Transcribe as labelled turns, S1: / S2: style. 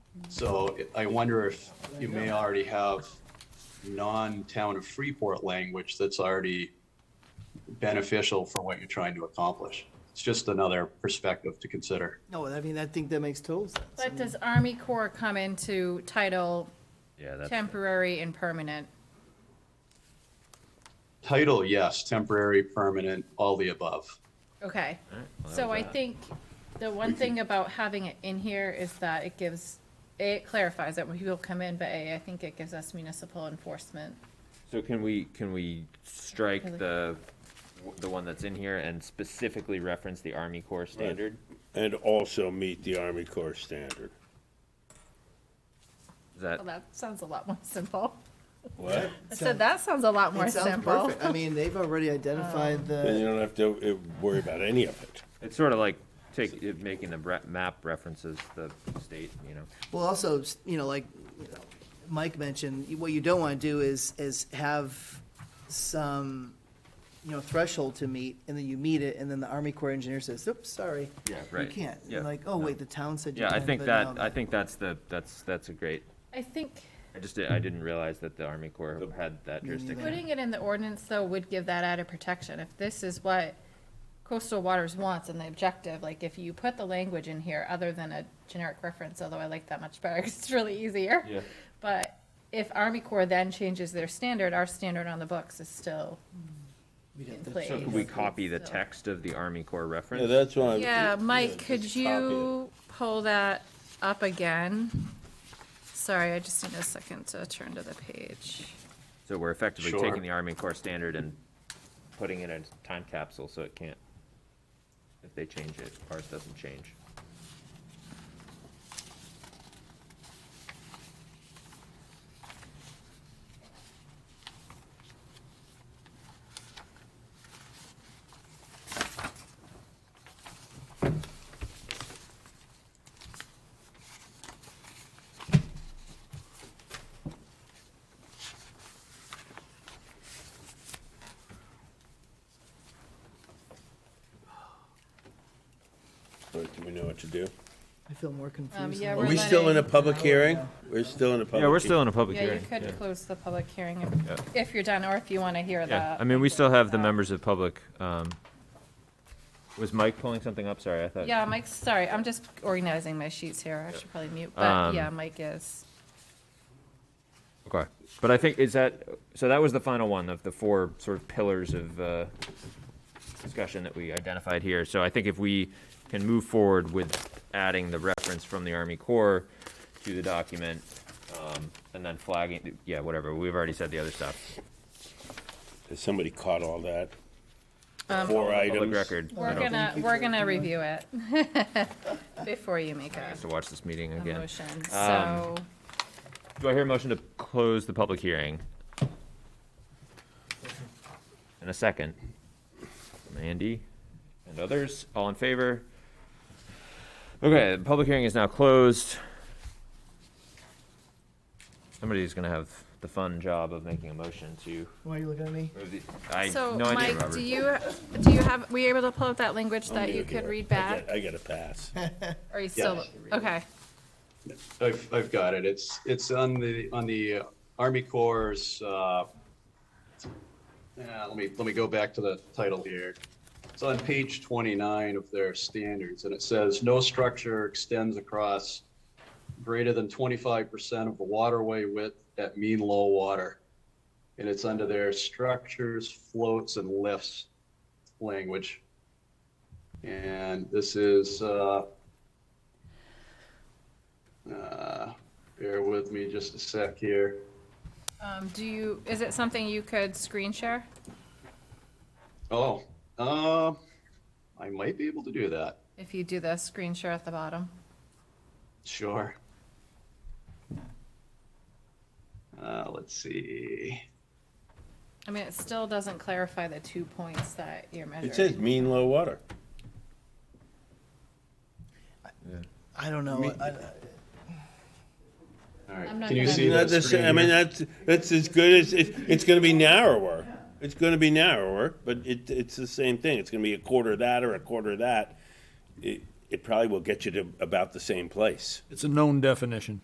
S1: So I wonder if you may already have non-town of Freeport language that's already beneficial for what you're trying to accomplish. It's just another perspective to consider.
S2: No, I mean, I think that makes total sense. I
S3: But
S2: mean,
S3: does Army Corps come into title
S4: Yeah, that's,
S3: temporary and permanent?
S1: Title, yes, temporary, permanent, all the above.
S3: Okay.
S4: Alright, well, that
S3: So
S4: was
S3: I
S4: that.
S3: think the one thing about having it in here is that it gives, A, it clarifies that when people come in, but A, I think it gives us municipal enforcement.
S4: so can we, can we strike
S3: Really?
S4: the, the one that's in here and specifically reference the Army Corps standard?
S5: And also meet the Army Corps standard.
S4: Is that,
S3: Well, that sounds a lot more simple.
S5: What?
S3: I said, that sounds a lot more
S2: It sounds
S3: simple.
S2: perfect. I mean, they've already
S3: Oh.
S2: identified
S5: Then you
S2: the,
S5: don't have to uh, worry about any of it.
S4: it's sort of like take, it- making the re- map references the state, you know?
S2: well, also, you know, like you know, Mike mentioned, what you don't want to do is, is have some, you know, threshold to meet, and then you meet it, and then the Army Corps engineer says, oops, sorry.
S4: Yeah, right.
S2: You can't.
S4: Yeah,
S2: And like, oh,
S4: no.
S2: wait, the town said you
S4: Yeah,
S2: can.
S4: I think
S2: but
S4: that,
S2: no,
S4: I think that's the, that's, that's a great,
S3: I think
S4: I just, di- I didn't realize that the Army Corps had that
S2: neither.
S4: jurisdiction.
S3: putting it in the ordinance though would give that added protection. If this is what coastal waters wants and the objective, like if you put the language in here other than a generic reference, although I like that much better 'cause it's really easier.
S4: Yeah,
S3: But if Army Corps then changes their standard, our standard on the books is still
S2: we'd have
S3: in
S2: to-
S3: place.
S4: so could we copy the
S3: So-
S4: text of the Army Corps reference?
S5: Yeah, that's why. I'm-
S3: Yeah, Mike,
S5: Uh, just
S3: could
S5: copy it.
S3: you pull that up again? Sorry, I just need a second to turn to the page.
S4: So we're effectively
S1: Sure.
S4: taking the Army Corps standard and putting it in a time capsule so it can't, if they change it, ours doesn't change.
S5: But Do we know what to do?
S2: I feel more confused.
S3: Um, yeah,
S2: now.
S5: Are
S3: We're
S5: we still in a
S3: letting-
S5: public hearing? We're still in a public.
S4: Yeah, we're still in a public
S3: Yeah, you
S4: hearing.
S3: could close the public hearing if-
S4: Yeah.
S3: if you're done, or if you want to hear
S4: Yeah,
S3: that.
S4: I mean, we still have the members of public, um, was Mike pulling something up? Sorry, I thought.
S3: Yeah, Mike's, sorry, I'm just organizing my sheets here. I should probably mute, but
S4: Um,
S3: yeah, Mike is.
S4: Okay, but I think, is that, so that was the final one of the four sort of pillars of, uh, discussion that we identified here. So I think if we can move forward with adding the reference from the Army Corps to the document, um, and then flagging, yeah, whatever, we've already said the other stuff.
S5: Has somebody caught all that?
S3: Um,
S5: Four items.
S4: Public record. I
S3: We're
S4: don't-
S3: gonna,
S2: Thank you
S3: we're
S2: for
S3: gonna
S2: doing that.
S3: review it before you make
S4: I
S3: a
S4: have to watch this meeting
S3: a
S4: again. Um,
S3: motion, so.
S4: Do I hear a motion to close the public hearing? And a second. From Andy and others, all in favor? Okay, the public hearing is now closed. Somebody's gonna have the fun job of making a motion to
S2: Why are you looking at me?
S4: move the, I,
S3: So,
S4: no idea,
S3: Mike,
S4: Robert.
S3: do you, do you have, were you able to pull up that language
S5: Oh,
S3: that you could read back?
S5: I got a pass.
S3: Or you still, okay,
S1: I've, I've got it. It's, it's on the, on the uh, Army Corps, uh, uh, let me, let me go back to the title here. It's on page 29 of their standards, and it says, "No structure extends across greater than 25% of the waterway width at mean low water." And it's under their structures, floats, and lifts language. And this is, uh, uh, bear with me just a sec here.
S3: um, do you, is it something you could screen share?
S1: Oh, uh, I might be able to do that.
S3: If you do the screen share at the bottom.
S1: Sure. Uh, let's see.
S3: I mean, it still doesn't clarify the two points that you're
S5: It
S3: measuring.
S5: says mean low water.
S2: I don't know. I- I-
S1: All right.
S3: I'm not
S1: Can you
S3: gonna-
S1: see
S5: Not
S1: that
S5: the
S1: screen?
S5: same, I mean,
S1: here?
S5: that's, that's as good as, it, it's gonna be narrower. It's gonna be narrower, but it, it's the same thing. It's gonna be a quarter of that or a quarter of that. It, it probably will get you to about the same place.
S6: It's a known definition.